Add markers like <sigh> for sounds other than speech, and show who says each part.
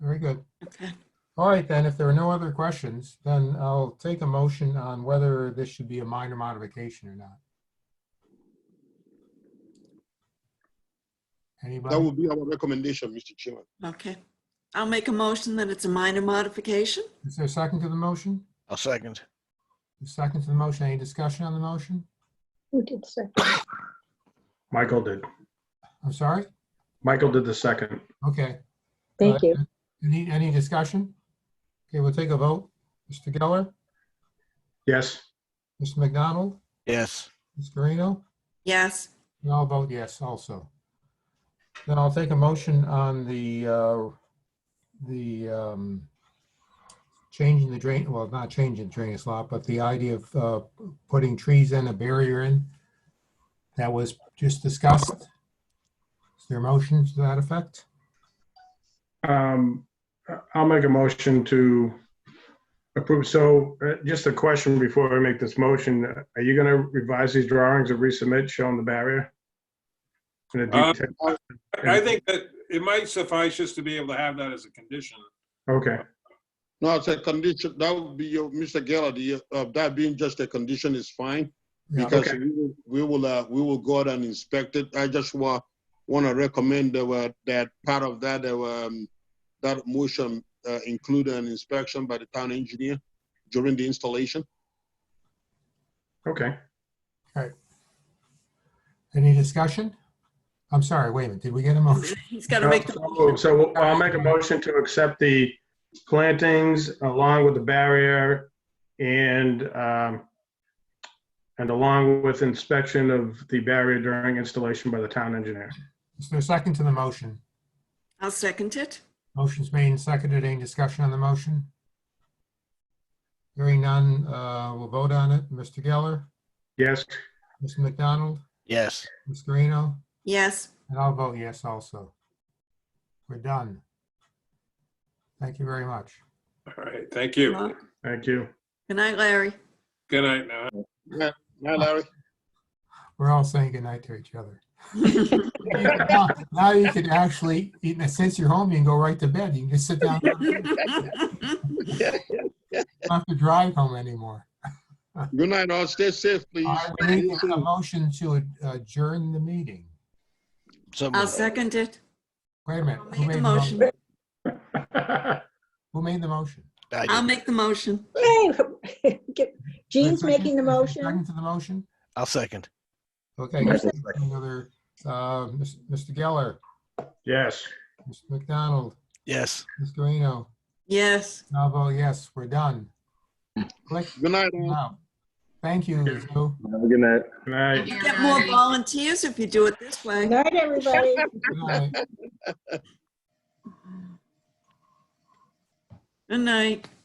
Speaker 1: Very good.
Speaker 2: Okay.
Speaker 1: All right, then, if there are no other questions, then I'll take a motion on whether this should be a minor modification or not.
Speaker 3: That
Speaker 1: Anybody?
Speaker 3: would be our recommendation, Mr. Chairman.
Speaker 2: Okay. I'll make a motion that it's a minor modification.
Speaker 1: Is there a second to the motion?
Speaker 4: I'll second.
Speaker 1: A Second to the motion? Any discussion on the motion?
Speaker 5: Who did second?
Speaker 6: Michael did.
Speaker 1: I'm sorry?
Speaker 6: Michael did the second.
Speaker 1: Okay.
Speaker 5: Thank
Speaker 1: Uh,
Speaker 5: you.
Speaker 1: Any, any discussion? Okay, we'll take a vote. Mr. Geller,
Speaker 6: Yes,
Speaker 1: Mr. McDonald,
Speaker 4: Yes.
Speaker 1: Ms. Garino,
Speaker 2: Yes.
Speaker 1: and I'll vote yes also. Then I'll take a motion on the, uh, the um, changing the drain, well, not changing the drainage lot, but the idea of uh, putting trees in, a barrier in. That was just discussed. Is there a motion to that effect?
Speaker 6: um, I'll make a motion to approve. So uh, just a question before we make this motion. Are you going to revise these drawings or resubmit showing the barrier? In a
Speaker 7: Uh,
Speaker 6: detail-
Speaker 7: I think that it might suffice just to be able to have that as a condition.
Speaker 6: Okay,
Speaker 3: No, it's a condition, that would be, your Mr. Geller, the, uh, that being just a condition is fine.
Speaker 1: Yeah.
Speaker 3: Because
Speaker 6: okay.
Speaker 3: we will, we will, uh, we will go out and inspect it. I just wa, want to recommend that, were- that part of that, uh, um, that motion, uh, include an inspection by the town engineer during the installation.
Speaker 6: okay.
Speaker 1: Any discussion? I'm sorry, wait a minute, did we get a motion?
Speaker 2: He's got to make the
Speaker 6: So- So I'll make a motion to accept the plantings along with the barrier and, um, and along with inspection of the barrier during installation by the town engineer.
Speaker 1: Is there a second to the motion?
Speaker 2: I'll second it.
Speaker 1: Motion's made and seconded. Any discussion on the motion? Hearing none, uh, we'll vote on it. Mr. Geller,
Speaker 6: Yes,
Speaker 1: Mr. McDonald,
Speaker 4: Yes.
Speaker 1: Ms. Garino,
Speaker 2: Yes.
Speaker 1: and I'll vote yes also. We're done. Thank you very much.
Speaker 7: All right, thank you.
Speaker 2: Well,
Speaker 6: thank you. <laughs>
Speaker 2: Good night, Larry. <laughs>
Speaker 7: Good night now.
Speaker 3: Now, Larry?
Speaker 1: We're all saying goodnight to each other. Now you can actually, even since you're home, you can go right to bed. You can just sit down. You don't have to drive home anymore.
Speaker 3: Good night, all. Stay safe, please.
Speaker 1: All right, we need a motion to adjourn the meeting.
Speaker 2: I'll
Speaker 4: Someone.
Speaker 2: second it.
Speaker 1: Wait a minute.
Speaker 2: I'll
Speaker 1: who
Speaker 2: make
Speaker 1: made
Speaker 2: the
Speaker 1: the
Speaker 2: motion.
Speaker 1: mo- Who made the motion?
Speaker 4: I
Speaker 2: I'll
Speaker 4: did.
Speaker 2: make the motion.
Speaker 5: Yay! Get- <laughs> Jean's
Speaker 1: Is there a second-
Speaker 5: making the
Speaker 1: is there a
Speaker 5: motion.
Speaker 1: Second to the motion?
Speaker 4: I'll second.
Speaker 1: Okay. any other, uh, Mis- Mr. Geller,
Speaker 6: Yes.
Speaker 1: Mr. McDonald,
Speaker 4: Yes.
Speaker 1: Ms. Guarino,
Speaker 2: Yes.
Speaker 1: and I'll vote yes, we're done. Click
Speaker 3: Good night, all.
Speaker 1: now. Thank you, Lou.
Speaker 8: Good night.
Speaker 6: Good night.
Speaker 2: You get more volunteers if you do it this way.
Speaker 5: Night, everybody.
Speaker 1: Good night.
Speaker 2: Good night.